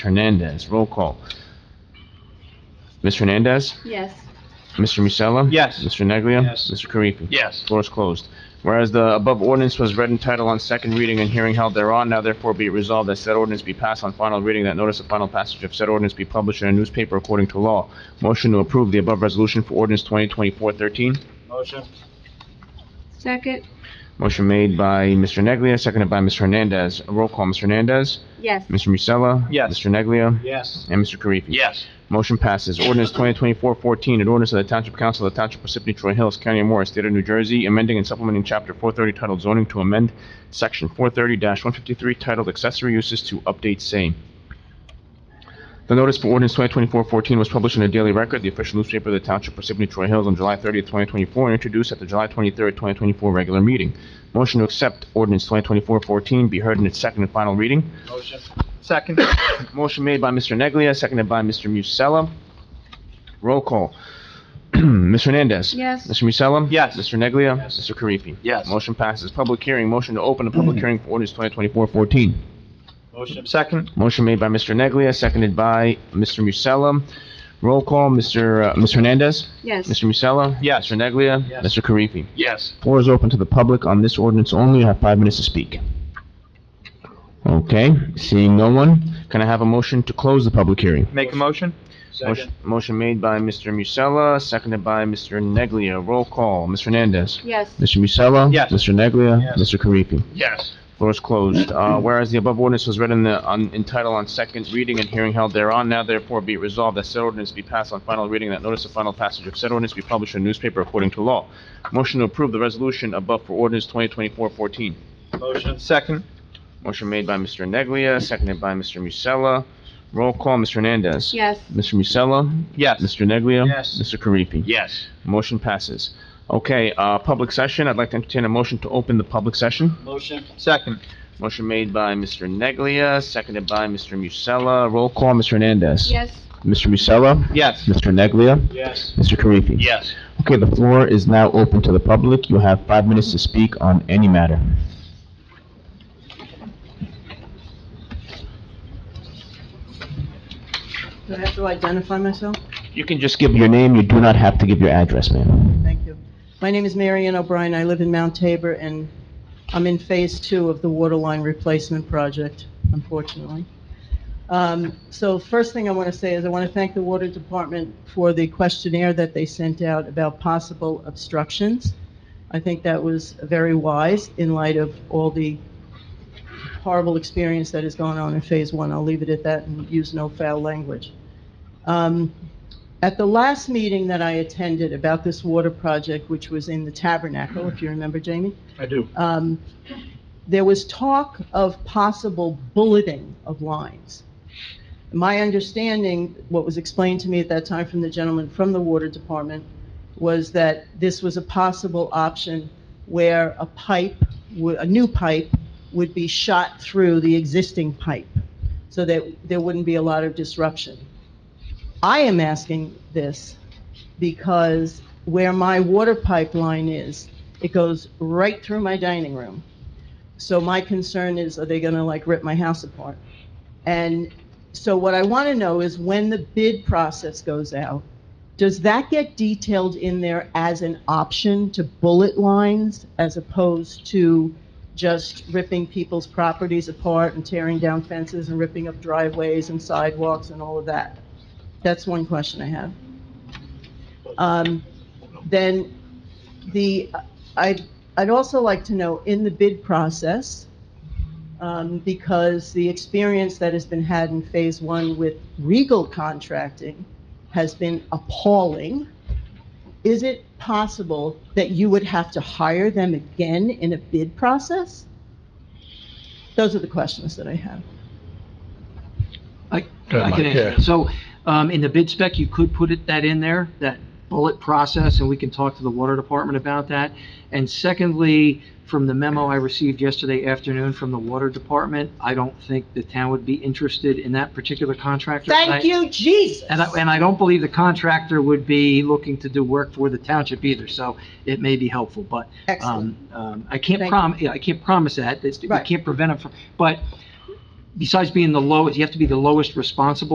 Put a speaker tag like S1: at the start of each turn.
S1: Hernandez, roll call. Ms. Hernandez?
S2: Yes.
S1: Mr. Musella?
S3: Yes.
S1: Mr. Neglia?
S3: Yes.
S1: Mr. Karifi?
S3: Yes.
S1: Floor is closed. Whereas the above ordinance was read in title on second reading and hearing held thereon, now therefore be it resolved that said ordinance be passed on final reading, that notice of final passage of said ordinance be published in a newspaper according to law. Motion to approve the above resolution for ordinance 2024-13.
S3: Motion?
S2: Second?
S1: Motion made by Mr. Neglia, seconded by Ms. Hernandez. Roll call, Ms. Hernandez?
S2: Yes.
S1: Mr. Musella?
S3: Yes.
S1: Mr. Neglia?
S3: Yes.
S1: And Mr. Karifi?
S3: Yes.
S1: Motion passes. Ordinance 2024-14, an ordinance of the Township Council of the Township Parsippany Troy Hills, County of Morris, State of New Jersey, amending and supplementing Chapter 430 titled Zoning to amend Section 430-153 titled Accessory Uses to update same. The notice for ordinance 2024-14 was published in the Daily Record, the official newspaper of the Township Parsippany Troy Hills, on July 30th, 2024, and introduced at the July 23rd, 2024 regular meeting. Motion to accept ordinance 2024-14 be heard in its second and final reading.
S3: Motion? Second?
S1: Motion made by Mr. Neglia, seconded by Mr. Musella. Roll call. Mr. Hernandez.
S2: Yes.
S1: Mr. Musella.
S3: Yes.
S1: Mr. Neglia.
S3: Yes.
S1: Mr. Karifi.
S3: Yes.
S1: Motion passes. Public hearing. Motion to open a public hearing for ordinance 2024-14.
S3: Motion? Second?
S1: Motion made by Mr. Neglia, seconded by Mr. Musella. Roll call, Mr. uh, Ms. Hernandez.
S2: Yes.
S1: Mr. Musella.
S3: Yes.
S1: Mr. Neglia.
S3: Yes.
S1: Mr. Karifi.
S3: Yes.
S1: Floor is open to the public on this ordinance only. You have five minutes to speak. Okay, seeing no one, can I have a motion to close the public hearing?
S3: Make a motion?
S1: Motion- Motion made by Mr. Musella, seconded by Mr. Neglia. Roll call, Mr. Hernandez.
S2: Yes.
S1: Mr. Musella?
S3: Yes.
S1: Mr. Neglia?
S3: Yes.
S1: Mr. Karifi?
S3: Yes.
S1: Floor is closed. Uh, whereas the above ordinance was read in the, on, in title on second reading and hearing held thereon, now therefore be it resolved that said ordinance be passed on final reading, that notice of final passage of said ordinance be published in a newspaper according to law. Motion to approve the resolution above for ordinance 2024-14.
S3: Motion? Second?
S1: Motion made by Mr. Neglia, seconded by Mr. Musella. Roll call, Mr. Hernandez.
S2: Yes.
S1: Mr. Musella?
S3: Yes.
S1: Mr. Neglia?
S3: Yes.
S1: Mr. Karifi?
S3: Yes.
S1: Motion passes. Okay, uh, public session, I'd like to entertain a motion to open the public session.
S3: Motion? Second?
S1: Motion made by Mr. Neglia, seconded by Mr. Musella. Roll call, Mr. Hernandez.
S2: Yes.
S1: Mr. Musella?
S3: Yes.
S1: Mr. Neglia?
S3: Yes.
S1: Mr. Karifi?
S3: Yes.
S1: Okay, the floor is now open to the public. You have five minutes to speak on any matter.
S4: Do I have to identify myself?
S1: You can just give your name, you do not have to give your address, ma'am.
S4: Thank you. My name is Mary Ann O'Brien. I live in Mount Tabor, and I'm in Phase Two of the water line replacement project, unfortunately. Um, So first thing I want to say is I want to thank the Water Department for the questionnaire that they sent out about possible obstructions. I think that was very wise in light of all the horrible experience that is going on in Phase One. I'll leave it at that and use no foul language. Um, At the last meeting that I attended about this water project, which was in the Tabernacle, if you remember, Jamie,
S3: I do.
S4: um, there was talk of possible bulleting of lines. My understanding, what was explained to me at that time from the gentleman from the Water Department, was that this was a possible option where a pipe, wo- a new pipe, would be shot through the existing pipe, so that there wouldn't be a lot of disruption. I am asking this because where my water pipeline is, it goes right through my dining room. So my concern is, are they gonna like rip my house apart? And so what I wanna know is when the bid process goes out, does that get detailed in there as an option to bullet lines as opposed to just ripping people's properties apart and tearing down fences and ripping up driveways and sidewalks and all of that? That's one question I have. Um, then the, I'd, I'd also like to know, in the bid process, um, because the experience that has been had in Phase One with Regal contracting has been appalling, is it possible that you would have to hire them again in a bid process? Those are the questions that I have.
S5: I
S6: ahead,
S5: I
S6: Mike.
S5: can answer that. So, um, in the bid spec, you could put it, that in there, that bullet process, and we can talk to the water department about that. And secondly, from the memo I received yesterday afternoon from the water department, I don't think the town would be interested in that particular contractor. And I-
S4: Thank you, Jesus!
S5: And um, I, and I don't believe the contractor would be looking to do work for the township either, so it may be helpful, but
S4: Excellent.
S5: um, um, I can't
S4: Thank
S5: prom, yeah, I can't promise that, it's, we
S4: Right.
S5: can't prevent it from, but besides being the lowest, you have to be the lowest responsible